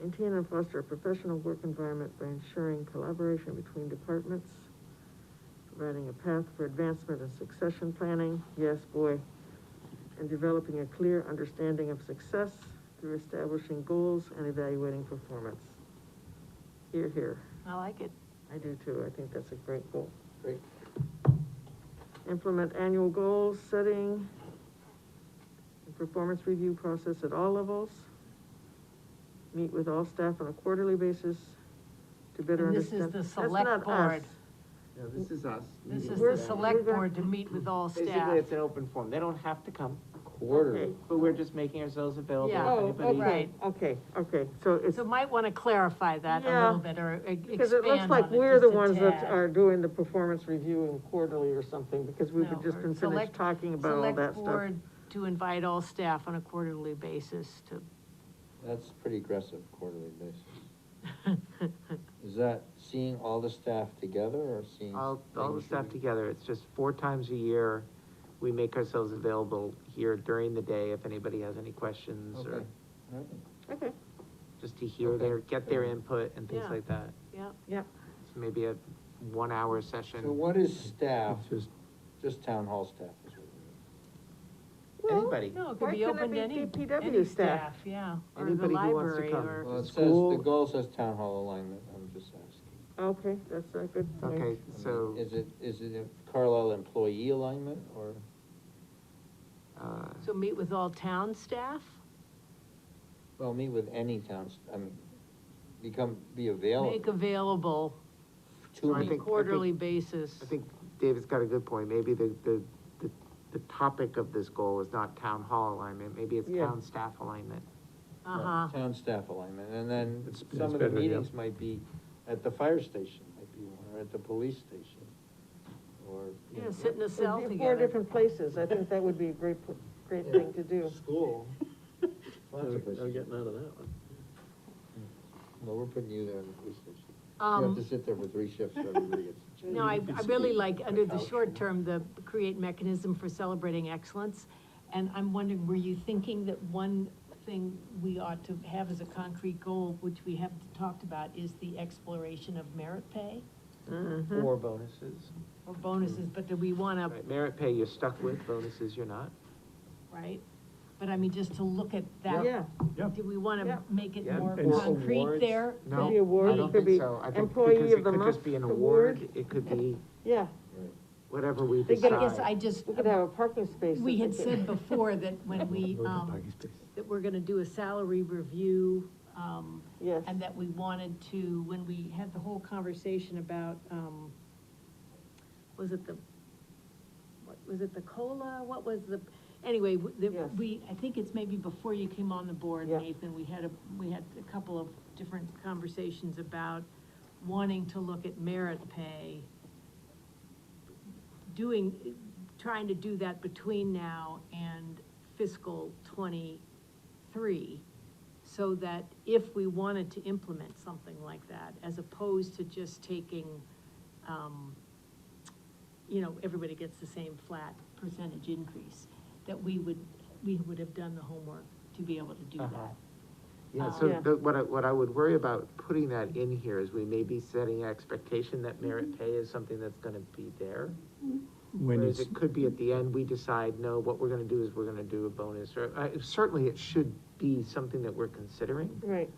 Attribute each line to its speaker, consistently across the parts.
Speaker 1: maintain and foster a professional work environment by ensuring collaboration between departments, providing a path for advancement and succession planning, yes, boy, and developing a clear understanding of success through establishing goals and evaluating performance. Here, here,
Speaker 2: I like it.
Speaker 1: I do too, I think that's a great goal.
Speaker 3: Great.
Speaker 1: Implement annual goals, setting, and performance review process at all levels. Meet with all staff on a quarterly basis to better
Speaker 2: And this is
Speaker 1: understand.
Speaker 2: the
Speaker 1: That's
Speaker 2: select
Speaker 1: not
Speaker 2: board.
Speaker 1: us.
Speaker 3: Yeah, this is us.
Speaker 2: This is
Speaker 1: We're-
Speaker 2: the
Speaker 1: we're
Speaker 2: select
Speaker 1: gonna-
Speaker 2: board to meet with all
Speaker 4: Basically,
Speaker 2: staff.
Speaker 4: it's an open forum, they don't have to come,
Speaker 1: Okay.
Speaker 3: Quarterly.
Speaker 4: but we're just making ourselves available
Speaker 2: Yeah.
Speaker 4: if
Speaker 1: Oh,
Speaker 4: anybody.
Speaker 1: okay,
Speaker 2: Right.
Speaker 1: okay, okay, so it's,
Speaker 2: So might wanna clarify that a
Speaker 1: Yeah.
Speaker 2: little bit, or e- expand on it
Speaker 1: because it looks like we're the
Speaker 2: just a
Speaker 1: ones that
Speaker 2: tad.
Speaker 1: are doing the performance review in quarterly or something, because we've
Speaker 2: No,
Speaker 1: just
Speaker 2: or
Speaker 1: been finished
Speaker 2: select-
Speaker 1: talking about all that
Speaker 2: Select
Speaker 1: stuff.
Speaker 2: board to invite all staff on a quarterly basis to,
Speaker 3: That's pretty aggressive quarterly basis. Is that seeing all the staff together or seeing?
Speaker 4: All, all the
Speaker 3: things
Speaker 4: stuff
Speaker 3: you-
Speaker 4: together, it's just four times a year, we make ourselves available here during the day if anybody has any questions or
Speaker 3: Okay. Alright.
Speaker 1: Okay,
Speaker 4: just to hear
Speaker 3: Okay.
Speaker 4: their, get their input and things
Speaker 2: Yeah.
Speaker 4: like that.
Speaker 2: yeah,
Speaker 1: yeah,
Speaker 4: It's maybe a one-hour session.
Speaker 3: So what is staff,
Speaker 4: It's just-
Speaker 3: just town hall staff? is what we
Speaker 1: Well,
Speaker 4: Anybody,
Speaker 2: no, it
Speaker 1: Why
Speaker 2: could be
Speaker 1: couldn't it
Speaker 2: open to
Speaker 1: be
Speaker 2: any,
Speaker 1: DPW
Speaker 2: any
Speaker 1: staff?
Speaker 2: staff, yeah, or the
Speaker 4: Anybody who wants to
Speaker 2: library,
Speaker 4: come.
Speaker 3: need. Well,
Speaker 2: or,
Speaker 3: it says, the
Speaker 4: School-
Speaker 3: goal says town hall alignment, I'm just asking.
Speaker 1: okay, that's a good point.
Speaker 4: okay,
Speaker 3: I mean,
Speaker 4: so,
Speaker 3: Is it, is it a Carlisle employee alignment or?
Speaker 4: uh,
Speaker 2: so meet with all town staff?
Speaker 3: Well, meet with any towns, I mean, become, be
Speaker 2: Make
Speaker 3: available
Speaker 2: available
Speaker 4: I
Speaker 3: to
Speaker 2: on a
Speaker 3: me.
Speaker 4: think-
Speaker 2: quarterly basis.
Speaker 4: I think David's got a good point, maybe the, the, the, the topic of this goal is not town hall alignment, maybe it's
Speaker 1: Yeah.
Speaker 4: town staff alignment.
Speaker 2: Uh-huh,
Speaker 3: Town staff alignment, and then
Speaker 4: Mm-hmm.
Speaker 5: It's-
Speaker 3: some
Speaker 5: it's
Speaker 3: of the
Speaker 5: better, yeah.
Speaker 3: meetings might be at the fire station, might be one, or at the police station, or. you
Speaker 2: yeah,
Speaker 3: know,
Speaker 2: sit in a
Speaker 1: It'd
Speaker 2: cell
Speaker 1: be Four
Speaker 2: together.
Speaker 1: different places, I think that would be a great, great thing to do.
Speaker 3: School. Lots of
Speaker 5: I'm
Speaker 3: places. Mm.
Speaker 5: getting out of that one.
Speaker 3: Well, we're putting you there in the police station. You have
Speaker 2: Um,
Speaker 3: to sit there for three shifts, so everybody gets.
Speaker 2: No, I, I really like, under the
Speaker 3: Couch.
Speaker 2: short term, the create mechanism for celebrating excellence. And I'm wondering, were you thinking that one thing we ought to have as a concrete goal, which we haven't talked about, is the exploration of merit pay Uh-huh.
Speaker 4: Or bonuses.
Speaker 2: or bonuses, but that we wanna,
Speaker 4: Right, Merit pay you're stuck with, bonuses you're not.
Speaker 2: right? But I mean, just to look at
Speaker 1: Yeah,
Speaker 2: that,
Speaker 5: Yeah.
Speaker 2: do we
Speaker 1: Yeah.
Speaker 2: wanna make it
Speaker 4: Yeah,
Speaker 2: more
Speaker 5: and-
Speaker 2: concrete
Speaker 5: Awards?
Speaker 2: there?
Speaker 4: No,
Speaker 1: Could be award,
Speaker 4: I don't
Speaker 1: it could
Speaker 4: think
Speaker 1: be
Speaker 4: so. I think
Speaker 1: employee
Speaker 4: because
Speaker 1: of
Speaker 4: it
Speaker 1: the
Speaker 4: could just
Speaker 1: month
Speaker 4: be an
Speaker 1: award.
Speaker 4: award, it could be
Speaker 1: yeah,
Speaker 3: Right.
Speaker 4: whatever we
Speaker 1: They
Speaker 2: I
Speaker 1: get-
Speaker 2: guess
Speaker 4: decide.
Speaker 2: I just,
Speaker 1: we could have a parking space.
Speaker 2: we
Speaker 1: that
Speaker 2: had
Speaker 1: they
Speaker 2: said
Speaker 1: could-
Speaker 2: before that when we, um, that we're gonna do a salary review, um,
Speaker 1: Yes,
Speaker 2: and that we wanted to, when we had the whole conversation about, um, was it the, what, was it the COLA, what was the, anyway, w- the-
Speaker 1: Yes.
Speaker 2: we, I think it's maybe before you came on the board,
Speaker 1: Yeah.
Speaker 2: Nathan, we had a, we had a couple of different conversations about wanting to look at merit pay, doing, trying to do that between now and fiscal twenty-three, so that if we wanted to implement something like that, as opposed to just taking, um, you know, everybody gets the same flat percentage increase, that we would, we would have done the homework to be able to do
Speaker 4: Uh-huh.
Speaker 2: that.
Speaker 4: Yeah,
Speaker 1: Yeah.
Speaker 4: so the, what I, what I would worry about putting that in here is we may be setting an expectation that
Speaker 1: Mm-hmm.
Speaker 4: merit pay is something that's gonna be there.
Speaker 5: When
Speaker 4: Whereas
Speaker 5: it's,
Speaker 4: it could be at the end, we decide, no, what we're gonna do is we're gonna do a bonus, or, uh, certainly it should be something that we're considering.
Speaker 1: right,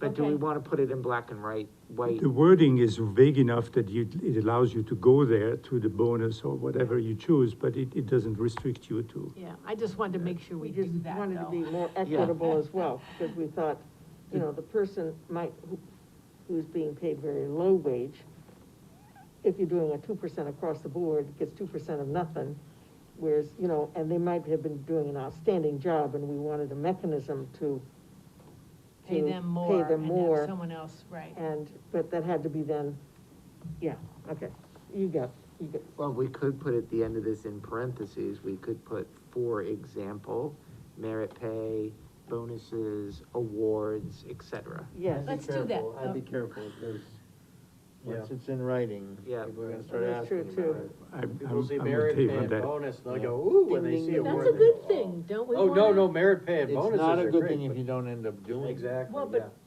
Speaker 4: But do we
Speaker 2: Okay.
Speaker 4: wanna put it in black and white, white?
Speaker 5: the wording is vague enough that you, it allows you to go there to the bonus or whatever you choose, but it, it doesn't restrict you to.
Speaker 2: Yeah, I just wanted to make sure
Speaker 1: we
Speaker 2: we
Speaker 1: just
Speaker 2: do that,
Speaker 1: wanted to
Speaker 2: though.
Speaker 1: be more equitable as well, because we thought, you know, the person might, who, who's being paid very low wage, if you're doing a two percent across the board, gets two percent of nothing, whereas, you know, and they might have been doing an outstanding job, and we wanted a mechanism to
Speaker 2: Pay
Speaker 1: to
Speaker 2: them more
Speaker 1: them
Speaker 2: and
Speaker 1: more.
Speaker 2: have someone else, right.
Speaker 1: And, but that had to be then, yeah, okay, you got, you got,
Speaker 4: Well, we could put at the end of this in parentheses, we could put, for example, merit pay, bonuses, awards, et cetera.
Speaker 1: yes.
Speaker 2: Let's do that.
Speaker 3: I'd be careful, because once it's in writing,
Speaker 4: Yeah.
Speaker 3: people are gonna start
Speaker 1: That's
Speaker 3: asking
Speaker 1: true,
Speaker 3: about
Speaker 1: too.
Speaker 3: it.
Speaker 5: I'm,
Speaker 3: People
Speaker 5: I'm
Speaker 3: see
Speaker 5: I'm with
Speaker 3: merit
Speaker 5: Dave
Speaker 3: pay
Speaker 5: on
Speaker 3: and
Speaker 5: that.
Speaker 3: bonus, and they go, ooh, when they
Speaker 4: Ding,
Speaker 3: see
Speaker 4: ding,
Speaker 3: a
Speaker 4: ding.
Speaker 3: word.
Speaker 2: That's a
Speaker 3: they
Speaker 2: good
Speaker 3: go,
Speaker 2: thing, don't we
Speaker 3: Oh,
Speaker 2: want?
Speaker 3: no, no, merit pay and
Speaker 4: It's
Speaker 3: bonuses
Speaker 4: not a
Speaker 3: are
Speaker 4: good thing
Speaker 3: great.
Speaker 4: if you don't end up
Speaker 3: but-
Speaker 4: doing it.
Speaker 3: Exactly,
Speaker 2: Well, but
Speaker 3: yeah.